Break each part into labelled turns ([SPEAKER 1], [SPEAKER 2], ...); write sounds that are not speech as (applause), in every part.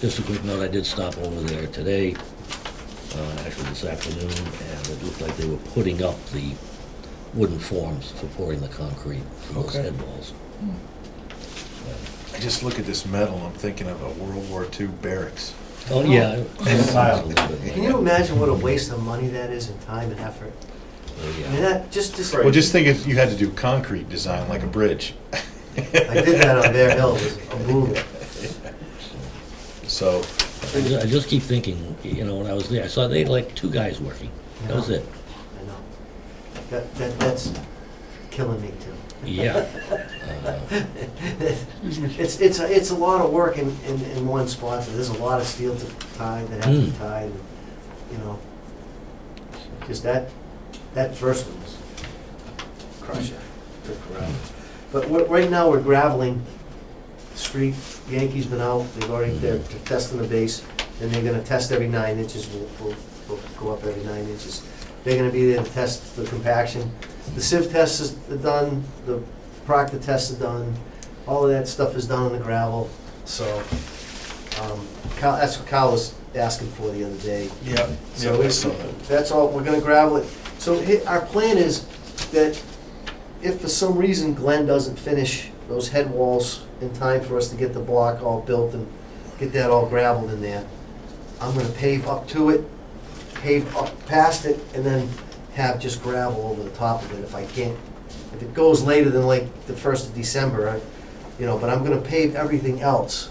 [SPEAKER 1] Just a quick note, I did stop over there today, uh, actually this afternoon, and it looked like they were putting up the wooden forms for pouring the concrete for those
[SPEAKER 2] Okay.
[SPEAKER 1] head walls.
[SPEAKER 2] I just look at this metal, I'm thinking of a World War II barracks.
[SPEAKER 1] Oh, yeah. it was a little bit like-
[SPEAKER 3] Can you imagine what a waste of money that is in time and effort?
[SPEAKER 1] Oh,
[SPEAKER 3] I mean,
[SPEAKER 1] yeah.
[SPEAKER 3] that, just, just.
[SPEAKER 2] Well, just think if you had to do concrete design like a bridge.
[SPEAKER 3] I did that on Bear Hill, it was a boom.
[SPEAKER 2] So,
[SPEAKER 1] I ju- I just keep thinking, you know, when I was there, I saw they had like two guys working. That was
[SPEAKER 3] Yeah.
[SPEAKER 1] it.
[SPEAKER 3] I know. That, that, that's killing me too.
[SPEAKER 1] Yeah. Uh,
[SPEAKER 3] (laughs) It's, it's, a- it's a lot of work in, in, in one spot, there's a lot of steel to tie, that have to be
[SPEAKER 1] Mm.
[SPEAKER 3] tied, and, you know. Because that, that first one was crusher, took forever. But we're- right now, we're graveling the street, Yankees been out, they've already, they're testing the base, and they're gonna test every nine inches, we'll, we'll, we'll go up every nine inches. They're gonna be there to test the compaction. The sieve test is done, the proctor tests are done, all of that stuff is done on the gravel, so, um, Kyle, that's what Kyle was asking for the other day.
[SPEAKER 2] yeah,
[SPEAKER 3] So
[SPEAKER 2] yeah, I
[SPEAKER 3] we-
[SPEAKER 2] saw that.
[SPEAKER 3] that's all, we're gonna gravel it. So hi- our plan is that if for some reason Glenn doesn't finish those head walls in time for us to get the block all built and get that all gravelled in there, I'm gonna pave up to it, pave up past it, and then have just gravel over the top of it if I can't. If it goes later than like the first of December, I, you know, but I'm gonna pave everything else.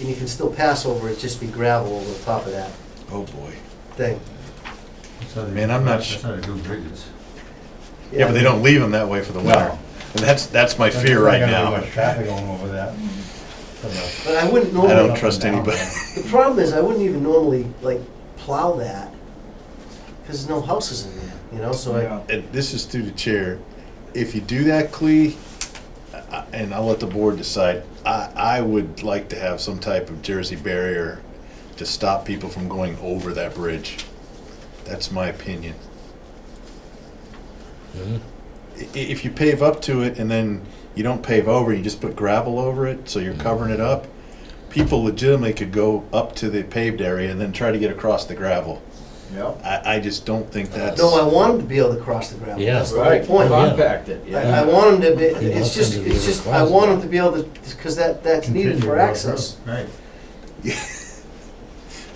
[SPEAKER 3] And you can still pass over it, just be gravel over the top of that
[SPEAKER 2] Oh, boy.
[SPEAKER 3] thing.
[SPEAKER 2] Man, I'm not
[SPEAKER 4] That's
[SPEAKER 2] su-
[SPEAKER 4] how they do bridges.
[SPEAKER 2] Yeah, but they don't leave them that way for the winter.
[SPEAKER 4] No.
[SPEAKER 2] And that's, that's my fear right now.
[SPEAKER 4] Traffic going over that.
[SPEAKER 3] But I wouldn't
[SPEAKER 2] I don't
[SPEAKER 3] normally,
[SPEAKER 2] trust anybody.
[SPEAKER 3] the problem is, I wouldn't even normally, like, plow that, because there's no houses in there, you know, so I,
[SPEAKER 2] And this is through the chair. If you do that, Clee, I- and I'll let the board decide, I, I would like to have some type of Jersey barrier to stop people from going over that bridge. That's my opinion.
[SPEAKER 3] (laughs)
[SPEAKER 1] mhm.
[SPEAKER 2] I- i- If you pave up to it and then you don't pave over, you just put gravel over it, so you're covering it up, people legitimately could go up to the paved area and then try to get across the gravel.
[SPEAKER 5] Yep.
[SPEAKER 2] I, I just don't think that's.
[SPEAKER 3] Uh, no, I want them to be able to cross the gravel,
[SPEAKER 1] Yeah.
[SPEAKER 3] that's the whole
[SPEAKER 5] Right,
[SPEAKER 3] point. I
[SPEAKER 5] compact it,
[SPEAKER 3] I
[SPEAKER 5] yeah.
[SPEAKER 3] want them to be,
[SPEAKER 1] You want
[SPEAKER 3] it's just,
[SPEAKER 1] them to be
[SPEAKER 3] it's
[SPEAKER 1] able to
[SPEAKER 3] just, I
[SPEAKER 1] cross
[SPEAKER 3] want
[SPEAKER 1] it.
[SPEAKER 3] them to be able to, because that, that's needed for access.
[SPEAKER 4] Right.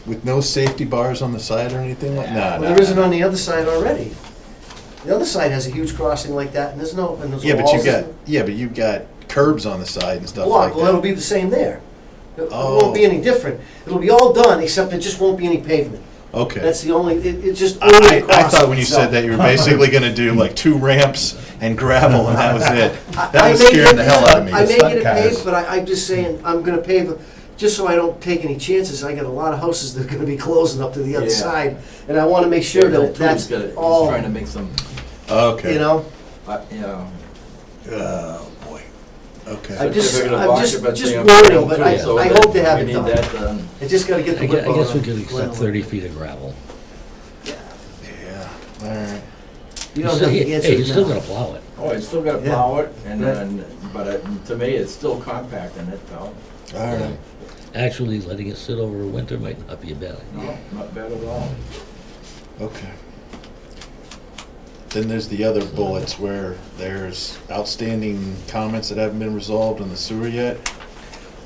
[SPEAKER 2] With no safety bars on the side or anything like, nah,
[SPEAKER 3] Well,
[SPEAKER 2] nah,
[SPEAKER 3] there isn't
[SPEAKER 2] nah.
[SPEAKER 3] on the other side already. The other side has a huge crossing like that, and there's no, and there's
[SPEAKER 2] Yeah, but you
[SPEAKER 3] walls.
[SPEAKER 2] got, yeah, but you've got curbs on the side and stuff like
[SPEAKER 3] block, well, it'll
[SPEAKER 2] that.
[SPEAKER 3] be the same there. It it
[SPEAKER 2] Oh.
[SPEAKER 3] won't be any different, it'll be all done, except there just won't be any pavement.
[SPEAKER 2] Okay.
[SPEAKER 3] That's the only, it, it just. only
[SPEAKER 2] I, I- I
[SPEAKER 3] crosses
[SPEAKER 2] thought when you said
[SPEAKER 3] itself.
[SPEAKER 2] that, you
[SPEAKER 3] (laughs)
[SPEAKER 2] were basically gonna do like two ramps and gravel and that was it.
[SPEAKER 3] (laughs) I- I
[SPEAKER 2] That was
[SPEAKER 3] may
[SPEAKER 2] scaring
[SPEAKER 3] get
[SPEAKER 2] the
[SPEAKER 3] it-
[SPEAKER 2] hell out of
[SPEAKER 3] I
[SPEAKER 2] me.
[SPEAKER 3] may
[SPEAKER 4] Stunt
[SPEAKER 3] get it
[SPEAKER 4] cars.
[SPEAKER 3] paved, but I, I'm just saying, I'm gonna pave, it just so I don't take any chances, I got a lot of houses that are gonna be closing up to the other
[SPEAKER 5] Yeah.
[SPEAKER 3] side, and I wanna make sure that that's
[SPEAKER 5] He's
[SPEAKER 3] all,
[SPEAKER 5] trying to make some,
[SPEAKER 2] Okay.
[SPEAKER 3] you know?
[SPEAKER 5] uh, you know.
[SPEAKER 2] Oh, boy.
[SPEAKER 3] I
[SPEAKER 2] Okay.
[SPEAKER 3] just-
[SPEAKER 5] certificate of
[SPEAKER 3] I'm just-
[SPEAKER 5] occupancy
[SPEAKER 3] just
[SPEAKER 5] on
[SPEAKER 3] worried,
[SPEAKER 5] building
[SPEAKER 3] but
[SPEAKER 5] too,
[SPEAKER 3] I-
[SPEAKER 5] so
[SPEAKER 3] I
[SPEAKER 5] that
[SPEAKER 3] hope they have it done.
[SPEAKER 5] We need that um, done.
[SPEAKER 3] I just gotta get
[SPEAKER 1] I
[SPEAKER 3] the
[SPEAKER 1] gue-
[SPEAKER 3] whip
[SPEAKER 1] I
[SPEAKER 3] on
[SPEAKER 1] guess we
[SPEAKER 3] it.
[SPEAKER 1] could accept thirty feet of gravel.
[SPEAKER 2] Yeah, all right.
[SPEAKER 3] You
[SPEAKER 1] He's
[SPEAKER 3] don't
[SPEAKER 1] still-
[SPEAKER 3] have
[SPEAKER 1] (laughs) Hey,
[SPEAKER 3] to
[SPEAKER 1] hey, you're still
[SPEAKER 3] answer
[SPEAKER 1] gonna
[SPEAKER 3] it now.
[SPEAKER 1] plow it.
[SPEAKER 5] Oh, it's still gotta
[SPEAKER 3] Yeah.
[SPEAKER 5] plow it, and
[SPEAKER 3] Yeah.
[SPEAKER 5] then, but it- to me, it's still compact in it, though.
[SPEAKER 2] All right.
[SPEAKER 1] Actually, letting it sit over winter might not be a bad idea.
[SPEAKER 5] No, not bad at all.
[SPEAKER 2] Okay. Then there's the other bullets where there's outstanding comments that haven't been resolved on the sewer yet.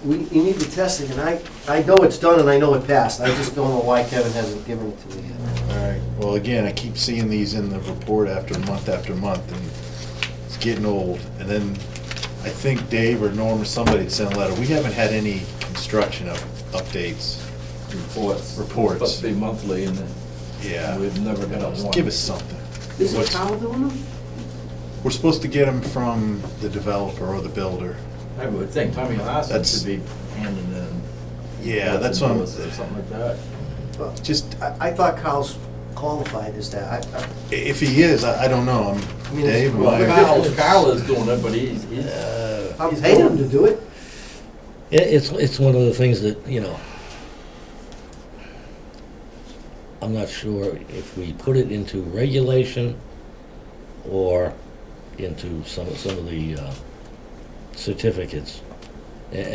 [SPEAKER 3] We, you need the testing, and I, I know it's done and I know it passed, I just don't know why Kevin hasn't given it to me yet.
[SPEAKER 2] All right, well, again, I keep seeing these in the report after month after month, and it's getting old. And then I think Dave or Norm or somebody had sent a letter, we haven't had any construction up, updates.
[SPEAKER 5] Reports.
[SPEAKER 2] Reports.
[SPEAKER 5] Supposed to be monthly, and then
[SPEAKER 2] Yeah,
[SPEAKER 5] we've never got a
[SPEAKER 2] Just
[SPEAKER 5] one.
[SPEAKER 2] give us something.
[SPEAKER 3] Is it
[SPEAKER 2] What's-
[SPEAKER 3] Kyle doing them?
[SPEAKER 2] We're supposed to get them from the developer or the builder.
[SPEAKER 5] I would think Tommy Larson
[SPEAKER 2] That's-
[SPEAKER 5] should be handing in.
[SPEAKER 2] Yeah, that's
[SPEAKER 5] nothing
[SPEAKER 2] what
[SPEAKER 5] to us Or
[SPEAKER 2] I'm,
[SPEAKER 5] something like that.
[SPEAKER 3] Well,
[SPEAKER 2] just,
[SPEAKER 3] I, I thought Kyle's qualified as that, I, I,
[SPEAKER 2] if he is, I, I don't know, I'm,
[SPEAKER 3] mean, it's-
[SPEAKER 2] Dave, am
[SPEAKER 5] Well,
[SPEAKER 2] I-
[SPEAKER 5] Kyle, Kyle is doing it, but he's, he's,
[SPEAKER 3] I'm
[SPEAKER 5] He's
[SPEAKER 3] paying him
[SPEAKER 5] going-
[SPEAKER 3] to do it.
[SPEAKER 1] It, it's, it's one of the things that, you know, I'm not sure if we put it into regulation or into some, some of the uh, certificates. A-